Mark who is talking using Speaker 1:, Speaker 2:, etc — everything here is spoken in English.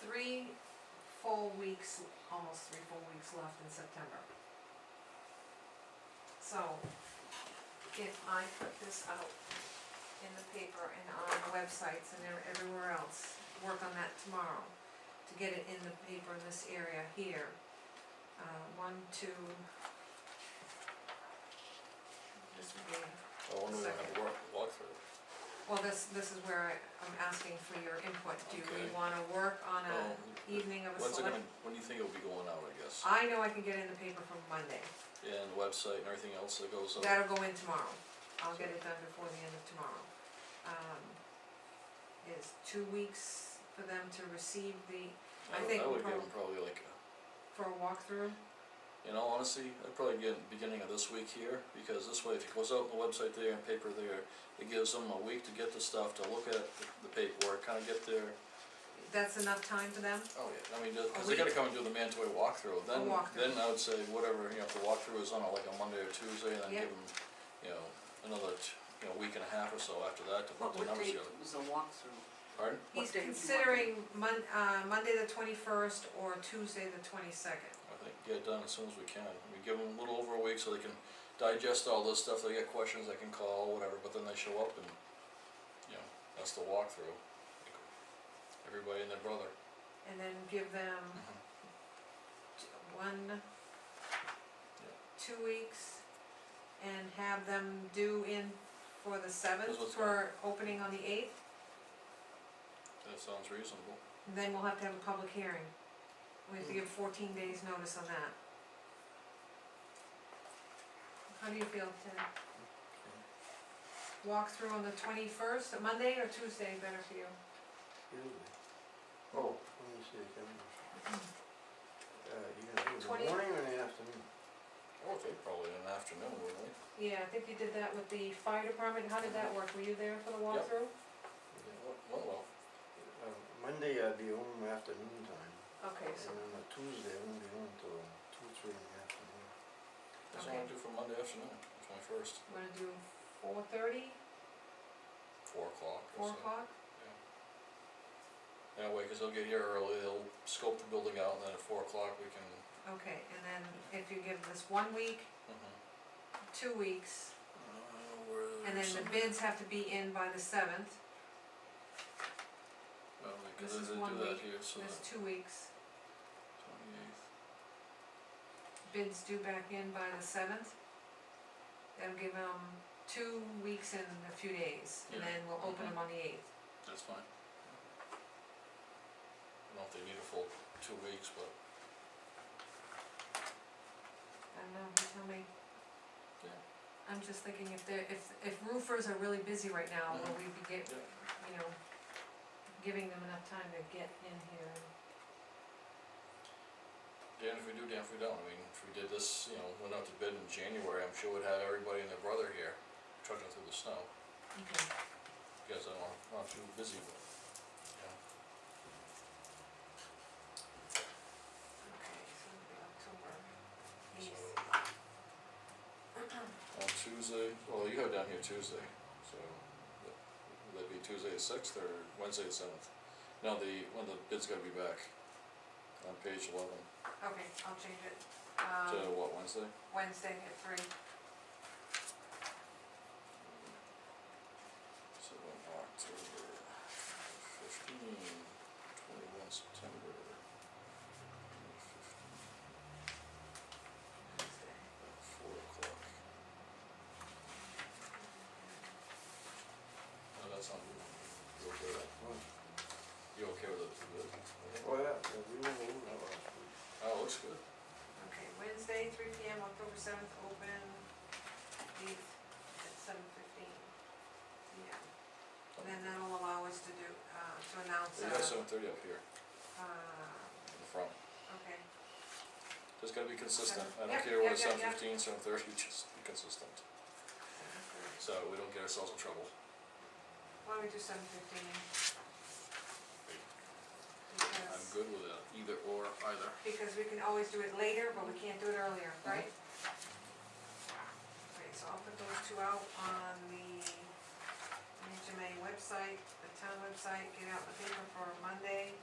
Speaker 1: three full weeks, almost three full weeks left in September. So, if I put this out in the paper and on websites and there- everywhere else, work on that tomorrow, to get it in the paper in this area here, uh, one, two. This would be
Speaker 2: I wonder if I have work, walkthrough.
Speaker 1: well, this, this is where I, I'm asking for your input, do we
Speaker 2: Okay.
Speaker 1: wanna work on a
Speaker 2: Um,
Speaker 1: evening of a
Speaker 2: When's it
Speaker 1: select?
Speaker 2: gonna, when do you think it'll be going out, I guess?
Speaker 1: I know I can get it in the paper from Monday,
Speaker 2: And the website and everything else that goes up?
Speaker 1: that'll go in tomorrow, I'll get it done before the end of tomorrow. Um, is two weeks for them to receive the, I
Speaker 2: would-
Speaker 1: think
Speaker 2: I would give
Speaker 1: prob-
Speaker 2: them probably like, a-
Speaker 1: for a walkthrough,
Speaker 2: in all honesty, I'd probably get it beginning of this week here, because this way, if it goes out on the website there and paper there, it gives them a week to get the stuff, to look at the- the paperwork, kinda get their,
Speaker 1: that's enough time for them?
Speaker 2: oh yeah, I mean, just-
Speaker 1: A
Speaker 2: cause they gotta
Speaker 1: week.
Speaker 2: come and do the mandatory walkthrough, then,
Speaker 1: walkthrough.
Speaker 2: then I would say whatever, you know, if the walkthrough is on a- like a Monday or Tuesday, then
Speaker 1: Yeah.
Speaker 2: give them, you know, another, t- you know, week and a half or so after that to put
Speaker 3: What,
Speaker 2: the
Speaker 3: what
Speaker 2: numbers
Speaker 3: date
Speaker 2: together.
Speaker 3: was the walkthrough?
Speaker 2: Pardon?
Speaker 1: He's
Speaker 3: What day would you want
Speaker 1: considering Mon- uh, Monday the twenty-first or Tuesday the twenty-second.
Speaker 2: I think get it done as soon as we can. We give them a little over a week so they can digest all this stuff, they get questions, they can call, whatever, but then they show up and, you know, that's the walkthrough. Everybody and their brother.
Speaker 1: And then give them t-
Speaker 3: Mm-hmm.
Speaker 1: one, two weeks, and have them due in for the seventh,
Speaker 2: That's what's
Speaker 1: for opening on the eighth,
Speaker 2: That sounds reasonable.
Speaker 1: and then we'll have to have a public hearing. We have to give fourteen days notice on that. How do you feel, Ted? Walk through on the twenty-first, Monday or Tuesday better for you?
Speaker 4: Excuse me. Oh, let me see, can, uh, you gonna do it in
Speaker 1: Twenty-
Speaker 4: the morning or in the afternoon?
Speaker 2: Or they probably in the afternoon, wouldn't they?
Speaker 1: Yeah, I think you did that with the fire department, how did that work, were you there for the walkthrough?
Speaker 4: Yeah.
Speaker 2: Well, well,
Speaker 4: Uh, Monday I'd be home afternoon time,
Speaker 1: Okay,
Speaker 4: and
Speaker 1: so,
Speaker 4: then the Tuesday I won't be home till two, three in the afternoon.
Speaker 2: that's what I do for Monday afternoon, twenty-first,
Speaker 1: wanna do four thirty,
Speaker 2: four o'clock
Speaker 1: four
Speaker 2: or so.
Speaker 1: o'clock?
Speaker 2: That way, cause they'll get here early, they'll scope the building out, and then at four o'clock we can,
Speaker 1: Okay, and then if you give this one week,
Speaker 2: mhm.
Speaker 1: two weeks,
Speaker 2: Uh, where
Speaker 1: and then the
Speaker 2: some-
Speaker 1: bids have to be in by the seventh,
Speaker 2: Well, we could
Speaker 1: This is
Speaker 2: either
Speaker 1: one
Speaker 2: do that
Speaker 1: week,
Speaker 2: here, so
Speaker 1: that's
Speaker 2: that
Speaker 1: two weeks.
Speaker 2: twenty-eighth.
Speaker 1: Bids due back in by the seventh. That'll give them two weeks and a few days, and
Speaker 2: Yeah.
Speaker 1: then we'll open
Speaker 2: Mhm.
Speaker 1: them on the eighth.
Speaker 2: That's fine. I don't know if they need a full two weeks, but
Speaker 1: I don't know, you tell me.
Speaker 2: Yeah.
Speaker 1: I'm just thinking if they're, if, if roofers are really busy right now, will
Speaker 2: Mhm.
Speaker 1: we be get,
Speaker 2: Yeah.
Speaker 1: you know, giving them enough time to get in here and
Speaker 2: Dan, if we do, Dan, if we don't, I mean, if we did this, you know, went out to bid in January, I'm sure we'd have everybody and their brother here trudging through the snow.
Speaker 1: Okay.
Speaker 2: Because I'm not, not too busy, but, yeah.
Speaker 1: Okay, so it'll be October
Speaker 2: So,
Speaker 1: eighth.
Speaker 2: on Tuesday, well, you have down here Tuesday, so that- would that be Tuesday the sixth or Wednesday the seventh? No, the, when the bid's gotta be back, on page eleven,
Speaker 1: Okay, I'll change it,
Speaker 2: to
Speaker 1: um,
Speaker 2: what, Wednesday?
Speaker 1: Wednesday at three.
Speaker 2: So October fifteen, twenty-one September. 15,
Speaker 1: Wednesday.
Speaker 2: about Four o'clock. No, Oh, that's not good. You okay with that?
Speaker 4: Well,
Speaker 2: You okay with it? Yeah.
Speaker 4: Oh, yeah, yeah, we were home that last week.
Speaker 2: Oh, it looks good.
Speaker 1: Okay, Wednesday, three P M, October seventh, open, eighth, at seven fifteen. Yeah, and then that'll allow us to do, uh, to announce,
Speaker 2: They have
Speaker 1: uh,
Speaker 2: seven thirty up here
Speaker 1: uh,
Speaker 2: in the front.
Speaker 1: okay,
Speaker 2: Just gotta be consistent. I don't
Speaker 1: Yep,
Speaker 2: care whether
Speaker 1: yep, yep,
Speaker 2: seven
Speaker 1: yep.
Speaker 2: fifteen, seven thirty, just be consistent. So we don't get ourselves in trouble.
Speaker 1: why don't we do seven fifteen?
Speaker 2: I'm
Speaker 1: Because,
Speaker 2: good with that, either or either.
Speaker 1: because we can always do it later, but we can't do it earlier,
Speaker 2: Mm-hmm.
Speaker 1: right? Okay, so I'll put those two out on the NHMA website, the town website, get out the paper for Monday.